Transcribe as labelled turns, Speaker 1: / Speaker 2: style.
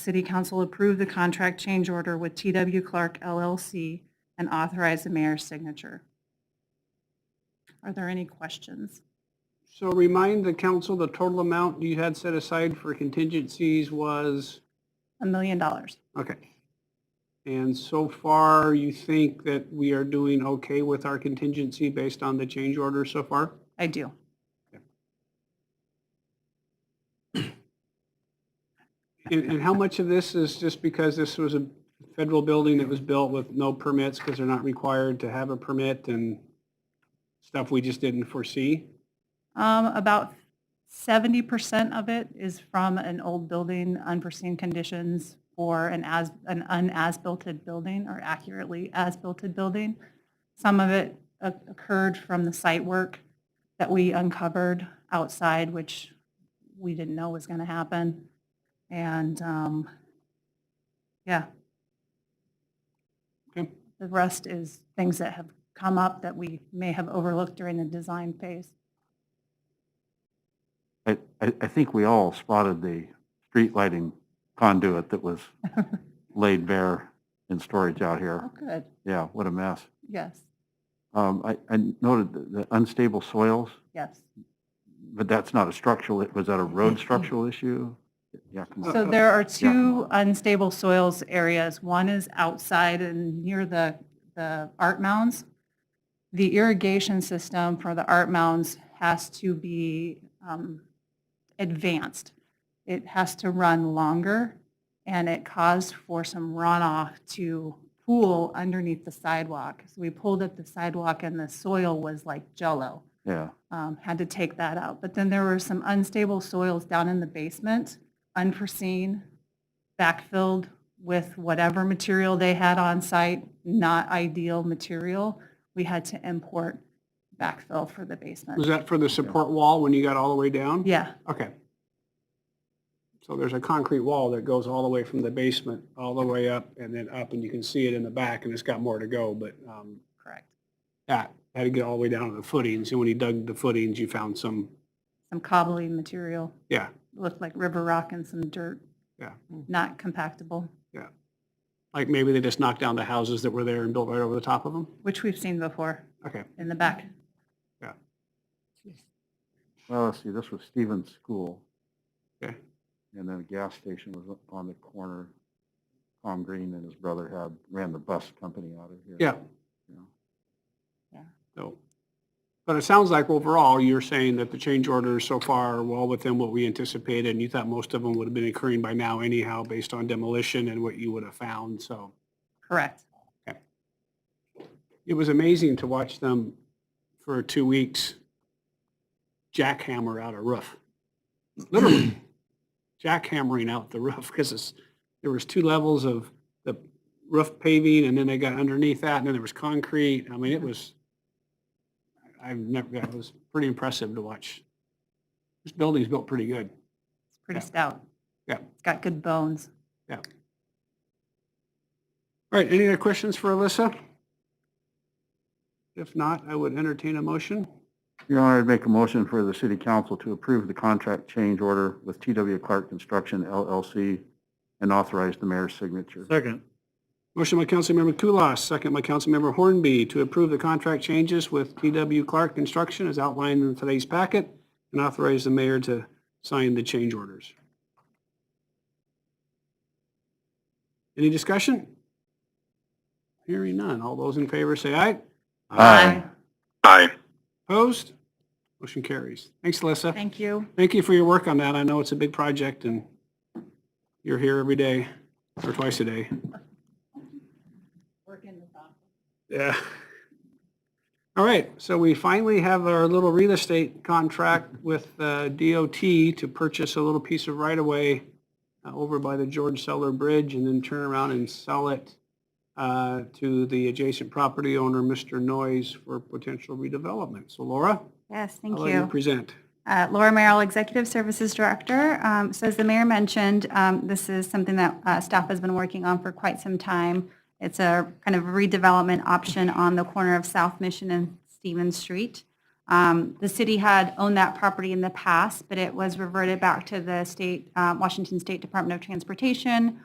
Speaker 1: City Council approve the contract change order with TW Clark LLC and authorize the mayor's signature. Are there any questions?
Speaker 2: So remind the council, the total amount you had set aside for contingencies was,
Speaker 1: A million dollars.
Speaker 2: okay. And so far, you think that we are doing okay with our contingency based on the change order so far?
Speaker 1: I do.
Speaker 2: And, and how much of this is just because this was a federal building that was built with no permits because they're not required to have a permit and stuff we just didn't foresee?
Speaker 1: Um, about seventy percent of it is from an old building, unforeseen conditions, or an as, an unasbilted building, or accurately as-built building. Some of it o- occurred from the site work that we uncovered outside, which we didn't know was gonna happen. And, um, yeah,
Speaker 2: Okay,
Speaker 1: the rest is things that have come up that we may have overlooked during the design phase.
Speaker 3: I, I, I think we all spotted the street lighting conduit that was laid bare in storage out
Speaker 1: Oh,
Speaker 3: here.
Speaker 1: good,
Speaker 3: Yeah, what a mess.
Speaker 1: yes,
Speaker 3: Um, I, I noted the- the unstable soils,
Speaker 1: yes.
Speaker 3: but that's not a structural, was that a road structural issue? Uh, Yeah, come on.
Speaker 1: So there are two unstable soils areas. One is outside and near the, the art mounds. The irrigation system for the art mounds has to be um, advanced. It has to run longer, and it caused for some runoff to pool underneath the sidewalk. So we pulled up the sidewalk, and the soil was like jello
Speaker 3: Yeah,
Speaker 1: um, had to take that out. But then there were some unstable soils down in the basement, unforeseen, backfilled with whatever material they had on site, not ideal material. We had to import backfill for the
Speaker 2: was
Speaker 1: basement.
Speaker 2: that for the support wall when you got all the way down?
Speaker 1: Yeah,
Speaker 2: Okay. So there's a concrete wall that goes all the way from the basement, all the way up and then up, and you can see it in the back, and it's got more to go, but um,
Speaker 1: correct.
Speaker 2: yeah, had to get all the way down to the footings, and when you dug the footings, you found some,
Speaker 1: Some cobbly material,
Speaker 2: yeah,
Speaker 1: looked like river rock and some dirt,
Speaker 2: yeah.
Speaker 1: not compactable,
Speaker 2: Like maybe they just knocked down the houses that were there and built right over the top of them?
Speaker 1: which we've seen before
Speaker 2: Okay,
Speaker 1: in the back.
Speaker 3: well, let's see, this was Stevens School.
Speaker 2: Okay.
Speaker 3: And then a gas station was on the corner. Tom Green and his brother had, ran the bus company out of here.
Speaker 2: yeah.
Speaker 3: Yeah.
Speaker 1: Yeah.
Speaker 2: So, but it sounds like overall, you're saying that the change orders so far are well within what we anticipated, and you thought most of them would have been occurring by now anyhow, based on demolition and what you would have found, so.
Speaker 1: Correct.
Speaker 2: it was amazing to watch them for two weeks jackhammer out a roof. Literally jackhammering out the roof because there was two levels of the roof paving and then they got underneath that and then there was concrete. I mean, it was, I've never, it was pretty impressive to watch. This building's built pretty good.
Speaker 1: It's pretty
Speaker 2: Yeah.
Speaker 1: stout.
Speaker 2: Yeah.
Speaker 1: It's got good bones.
Speaker 2: All right, any other questions for Alyssa? If not, I would entertain a motion.
Speaker 3: Your Honor, I'd make a motion for the city council to approve the contract change order with TW Clark Construction LLC and authorize the mayor's signature.
Speaker 2: Second. Motion by Councilmember Kulas, second by Councilmember Hornby to approve the contract changes with TW Clark Construction as outlined in today's packet and authorize the mayor to sign the change orders. Any discussion? Hearing none. All those in favor say aye.
Speaker 3: Aye.
Speaker 2: Opposed? Motion carries. Thanks, Alyssa.
Speaker 1: Thank you.
Speaker 2: Thank you for your work on that. I know it's a big project and you're here every day or twice a day.
Speaker 1: Work in the office.
Speaker 2: Yeah. All right, so we finally have our little real estate contract with uh, DOT to purchase a little piece of right-of-way uh, over by the George Seller Bridge and then turn around and sell it uh, to the adjacent property owner, Mr. Noyes, for potential redevelopment. So Laura,
Speaker 4: Yes, thank
Speaker 2: I'll let you
Speaker 4: you.
Speaker 2: present.
Speaker 4: Uh, Laura Merrill, Executive Services Director. Um, So as the mayor mentioned, um, this is something that uh, staff has been working on for quite some time. It's a kind of redevelopment option on the corner of South Mission and Stevens Street. Um,
Speaker 1: Um, The city had owned that property in the past, but it was reverted back to the state, uh, Washington State Department of Transportation